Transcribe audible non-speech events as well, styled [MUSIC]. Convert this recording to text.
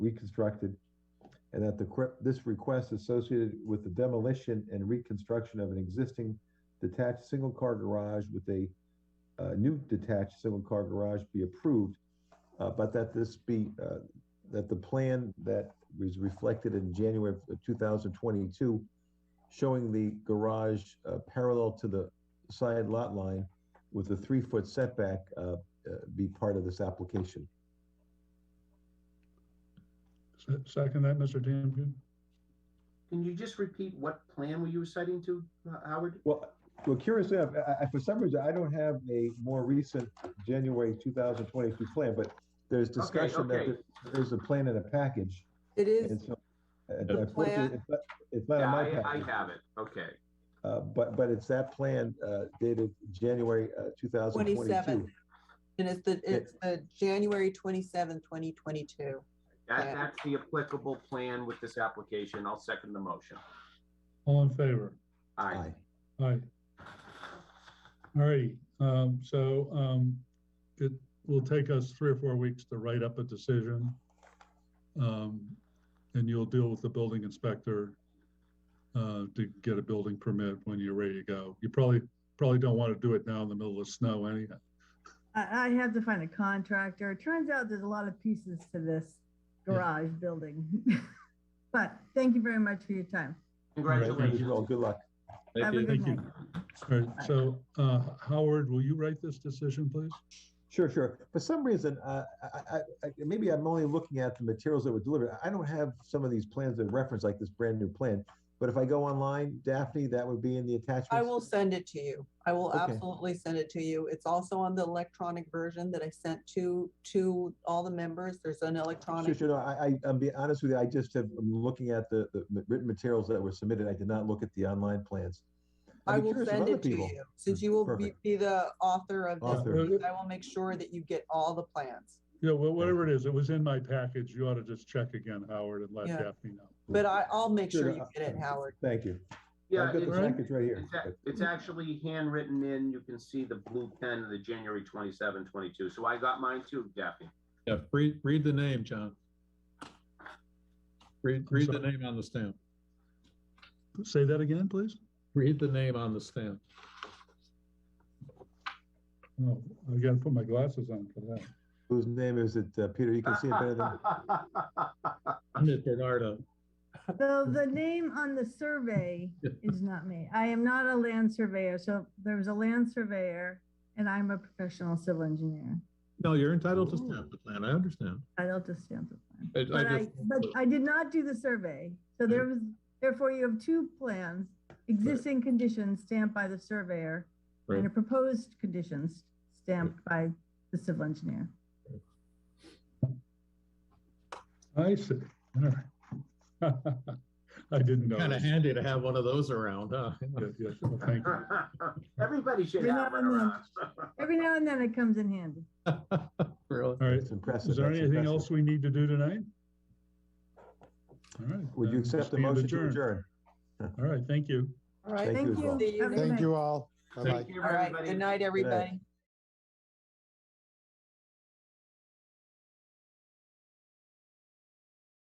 reconstructed, and that the, que- this request associated with the demolition and reconstruction of an existing detached single-car garage with a uh, new detached single-car garage be approved, uh, but that this be, uh, that the plan that was reflected in January of 2022, showing the garage uh, parallel to the side lot line with a three-foot setback uh, uh, be part of this application. Se- Second that, Mr. Damkin? Can you just repeat what plan were you citing to, uh, Howard? Well, well, curiously, I, I, for some reason, I don't have a more recent January 2022 plan, but there's discussion that okay. there- there's a plan in a package. It is, And so, uh, The unfortunately, plan- it's not- it's not in Yeah, Uh, my I, I package. have it, okay. Uh, but, but it's that plan, uh, dated January, uh, two thousand twenty-two. 27th. and it's the, it's the January twenty-seventh, twenty twenty-two. That, Yeah. that's the applicable plan with this application. I'll second the motion. All in favor? Aye. Aye. All righty, um, so, um, it will take us three or four weeks to write up a decision. Um, and you'll deal with the building inspector, uh, to get a building permit when you're ready to go. You probably, probably don't want to do it now in the middle of snow anyhow. I, I have to find a contractor. It turns out there's a lot of pieces to this Yeah. garage building. [LAUGHS] But thank you very much for your time. Well, Congratulations. good luck. Have a good Thank you. night. All right, so, uh, Howard, will you write this decision, please? Sure, sure. For some reason, uh, I, I, I, maybe I'm only looking at the materials that were delivered. I don't have some of these plans that reference like this brand new plan. But if I go online, Daphne, that would be in the attachments. I will send it to you. I will Okay. absolutely send it to you. It's also on the electronic version that I sent to, to all the members. There's an Sure, electronic. sure. No, I, I, I'm being honest with you. I just have, I'm looking at the, the written materials that were submitted. I did not look at the online plans. I'd I be will curious if send other it to people- you, since you will be, Perfect. be the author of Author. this. Uh, I will make sure that you get all the plans. Yeah, well, whatever it is, it was in my package. You ought to just check again, Howard, and let Yeah. Daphne know. But I, I'll make sure Sure, you uh, get it, Howard. Thank you. Yeah, I've got the it's, package right here. it's a- it's actually handwritten in. You can see the blue pen of the January 27, 22. So I got mine too, Daphne. Yeah, read, read the name, John. Read, I'm read the sorry. name on the stamp. Say that again, please? Read the name on the stamp. Oh, I gotta put my glasses on for that. Whose name is it? Uh, Peter, you can see it better [LAUGHS] than, Nick Bernardo. So the name on the survey [LAUGHS] is not me. I am not a land surveyor. So there was a land surveyor and I'm a professional civil engineer. No, you're entitled to stamp the plan. I understand. I don't just stamp the plan. I- I But I, just- but I did not do the survey. So there was, therefore you have two plans, existing conditions stamped by the surveyor and a Right. proposed conditions stamped by the civil engineer. I see, all right. [LAUGHS] I didn't know. Kind [LAUGHS] of that. handy to have one of those around, huh? [LAUGHS] Yeah, yeah, well, Thank you. Everybody should You're have not one on around. Every now and then it comes in handy. Really? All right, it's impressive. is there That's anything impressive. else we need to do tonight? All right. Would you then accept the stand motion to adjourned. adjourn? All right, thank you. All right. Thank you Thank as well. you. See you Have a good next- night. Thank you all. Bye-bye. [LAUGHS] Thank you, All right. everybody. Good night, everybody.